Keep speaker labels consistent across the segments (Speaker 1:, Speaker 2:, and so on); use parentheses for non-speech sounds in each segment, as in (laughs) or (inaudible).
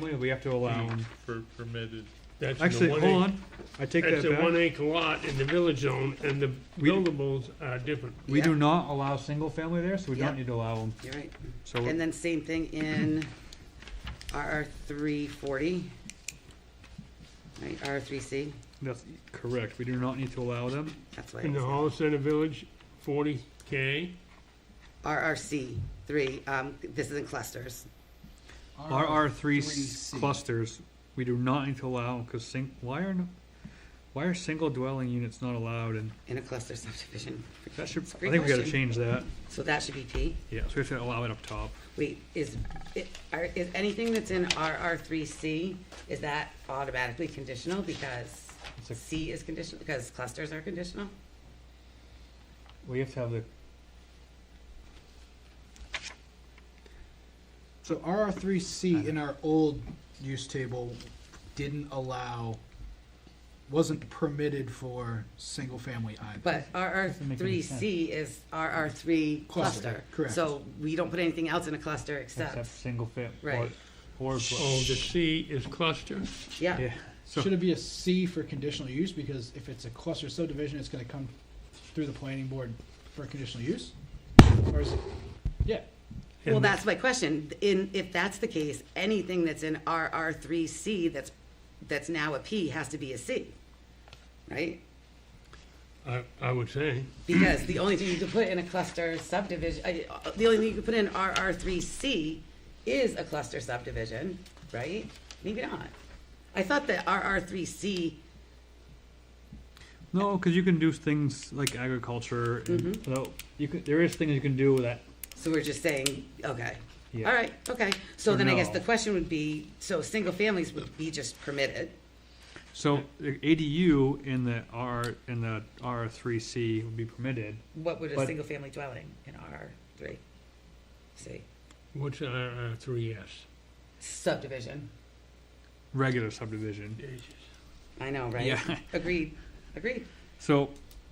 Speaker 1: family, we have to
Speaker 2: Mm-hmm.
Speaker 1: allow,
Speaker 3: for permitted.
Speaker 4: That's in the
Speaker 1: actually,
Speaker 4: one
Speaker 1: hold
Speaker 4: ac-
Speaker 1: on, I take
Speaker 4: That's
Speaker 1: that
Speaker 4: a one
Speaker 1: back.
Speaker 4: acre lot in the village zone, and the
Speaker 1: We-
Speaker 4: buildables are different.
Speaker 1: We
Speaker 2: Yeah.
Speaker 1: do not allow single family there, so we
Speaker 2: Yeah.
Speaker 1: don't need to allow them,
Speaker 2: You're right.
Speaker 1: so.
Speaker 2: And then same thing in RR three forty. Right, R three C,
Speaker 1: That's correct, we do not need to allow them.
Speaker 2: that's why.
Speaker 4: In the Hollis Center Village, forty K,
Speaker 2: RRC three, um, this is in clusters.
Speaker 1: RR three
Speaker 5: RR3C.
Speaker 1: clusters, we do not need to allow, because sing, why are, no- why are single dwelling units not allowed, and
Speaker 2: In a cluster (laughs) subdivision.
Speaker 1: that should, I
Speaker 2: It's a great
Speaker 1: think we gotta
Speaker 2: question.
Speaker 1: change that.
Speaker 2: So that should be P.
Speaker 1: Yeah, so we have to allow it up top.
Speaker 2: Wait, is, it- are, is anything that's in RR three C, is that automatically conditional because
Speaker 1: It's a-
Speaker 2: C is conditional, because clusters are conditional?
Speaker 1: We have to have the,
Speaker 5: So RR three C in our old use table didn't allow, wasn't permitted for single family either.
Speaker 2: But RR
Speaker 1: Doesn't make any
Speaker 2: three
Speaker 1: sense.
Speaker 2: C is RR three
Speaker 5: Cluster,
Speaker 2: cluster.
Speaker 5: correct.
Speaker 2: So we don't put anything else in a cluster
Speaker 1: except
Speaker 2: except,
Speaker 1: single fam, or,
Speaker 2: Right.
Speaker 1: or.
Speaker 4: oh, the C is cluster,
Speaker 2: yeah,
Speaker 1: Yeah, so,
Speaker 5: Should it be a C for conditional use, because if it's a cluster subdivision, it's gonna come through the planning board for conditional use? Or is it, yeah,
Speaker 2: well,
Speaker 4: And-
Speaker 2: that's my question, in, if that's the case, anything that's in RR three C that's, that's now a P has to be a C, right?
Speaker 4: I, I would say.
Speaker 2: Because the only thing you could put in a cluster subdivision, uh, the only thing you could put in RR three C is a cluster subdivision, right? Maybe not. I thought that RR three C,
Speaker 1: no, cause you can do things like agriculture, and,
Speaker 2: Mm-hmm.
Speaker 1: without- you could, there is things you can do with that,
Speaker 2: so we're just saying, okay.
Speaker 1: yeah.
Speaker 2: All right, okay. So
Speaker 1: So
Speaker 2: then I guess
Speaker 1: no.
Speaker 2: the question would be, so single families would be just permitted?
Speaker 1: So the ADU in the R, in the R three C would be permitted,
Speaker 2: What would a
Speaker 1: But-
Speaker 2: single family dwelling in R three? See,
Speaker 4: What's RR three S?
Speaker 2: subdivision.
Speaker 1: regular subdivision.
Speaker 2: I know, right?
Speaker 1: Yeah.
Speaker 2: (laughs) Agreed, agreed.
Speaker 1: So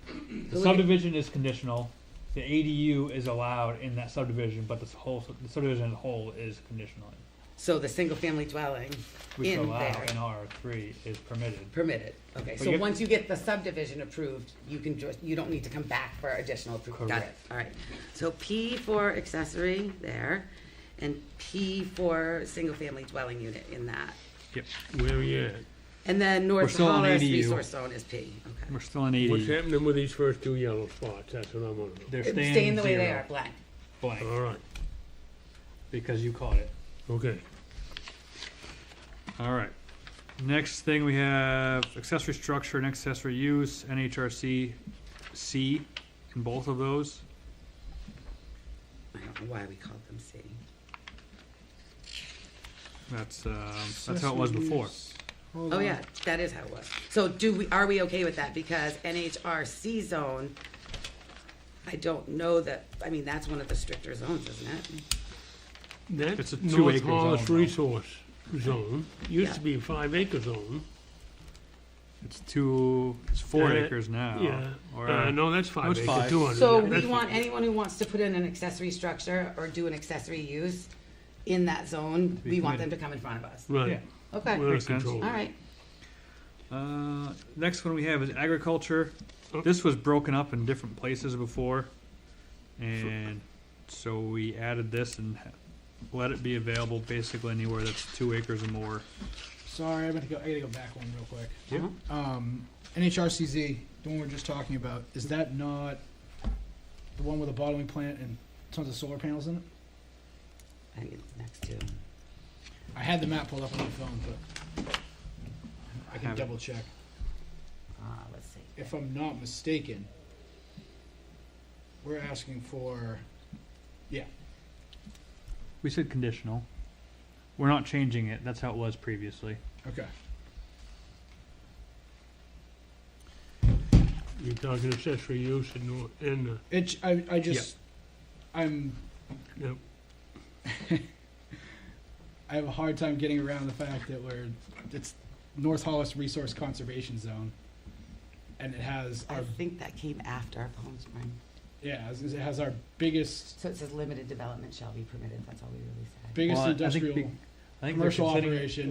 Speaker 1: the
Speaker 2: So we-
Speaker 1: subdivision is conditional, the ADU is allowed in that subdivision, but this whole, sub- the subdivision as a whole is conditional.
Speaker 2: So the single family dwelling
Speaker 1: Which
Speaker 2: in
Speaker 1: allow
Speaker 2: there
Speaker 1: in R three is permitted.
Speaker 2: permitted. Okay,
Speaker 1: you
Speaker 2: so
Speaker 1: have-
Speaker 2: once you get the subdivision approved, you can just, you don't need to come back for additional approval. Got it,
Speaker 1: Correct.
Speaker 2: all right. So P for accessory there and P for single family dwelling unit in that.
Speaker 1: Yep,
Speaker 4: Where are you at?
Speaker 2: And then North
Speaker 1: still on E
Speaker 2: Hollis
Speaker 1: ADU.
Speaker 2: Resource Zone is P, okay.
Speaker 1: we're still in
Speaker 4: What's
Speaker 1: ADU.
Speaker 4: happening with these first two yellow spots? That's what I want to know.
Speaker 1: They're
Speaker 2: Staying
Speaker 1: staying
Speaker 2: the way they
Speaker 1: zero,
Speaker 2: are, blank.
Speaker 1: blank,
Speaker 4: All right,
Speaker 1: because you caught it.
Speaker 4: okay.
Speaker 1: All right. Next thing we have accessory structure and accessory use, NHRC C in both of those.
Speaker 2: I don't know why we called them C.
Speaker 1: That's, um, that's how it was before.
Speaker 2: Oh, yeah, that is how it was. So do we, are we okay with that? Because NHRC zone, I don't know that, I mean, that's one of the stricter zones, isn't it?
Speaker 1: It's
Speaker 4: That's
Speaker 1: a
Speaker 4: North
Speaker 1: two-acre zone,
Speaker 4: Hollis
Speaker 1: though.
Speaker 4: Resource Zone, used to
Speaker 2: Yeah.
Speaker 4: be a five acre zone.
Speaker 1: It's two, it's four
Speaker 4: Uh,
Speaker 1: acres now.
Speaker 4: Yeah,
Speaker 1: Or,
Speaker 4: uh, no, that's five
Speaker 1: That's
Speaker 4: acre,
Speaker 1: five.
Speaker 4: two hundred.
Speaker 2: So we want anyone who wants to put in an accessory structure or do an accessory use in that zone,
Speaker 1: Be
Speaker 2: we want them to come in front of us.
Speaker 1: yeah.
Speaker 4: Right.
Speaker 2: Okay, all
Speaker 4: We're in
Speaker 1: Makes sense.
Speaker 4: control.
Speaker 2: right.
Speaker 1: Uh, next one we have is agriculture.
Speaker 4: Oh.
Speaker 1: This was broken up in different places before. And so we added this and ha- let it be available basically anywhere that's two acres or more.
Speaker 5: Sorry, I meant to go, I gotta go back one real quick.
Speaker 1: Yeah.
Speaker 5: Um, NHRCZ, the one we are just talking about, is that not the one with a bottling plant and tons of solar panels in it?
Speaker 2: I think it's next to, uh,
Speaker 5: I had the map pulled up on my phone, but I can
Speaker 1: Have it.
Speaker 5: double check.
Speaker 2: uh, let's see.
Speaker 5: If I'm not mistaken, we're asking for,
Speaker 1: We said conditional. We're not changing it. That's how it was previously.
Speaker 5: okay,
Speaker 4: You're talking accessory use in, Nor- in, uh,
Speaker 5: it, j- I, I just, I'm,
Speaker 4: Yep.
Speaker 5: I have a hard time getting around the fact that we're, it's North Hollis Resource Conservation Zone. And it has
Speaker 2: I
Speaker 5: our,
Speaker 2: think that came after our Palm Spring.
Speaker 5: yeah, it has our biggest
Speaker 2: So it says limited development shall be permitted, that's all we really said.
Speaker 5: Biggest
Speaker 1: Well, I- I think
Speaker 5: industrial.
Speaker 1: big- I think they're
Speaker 5: commercial
Speaker 1: considering-
Speaker 5: operation.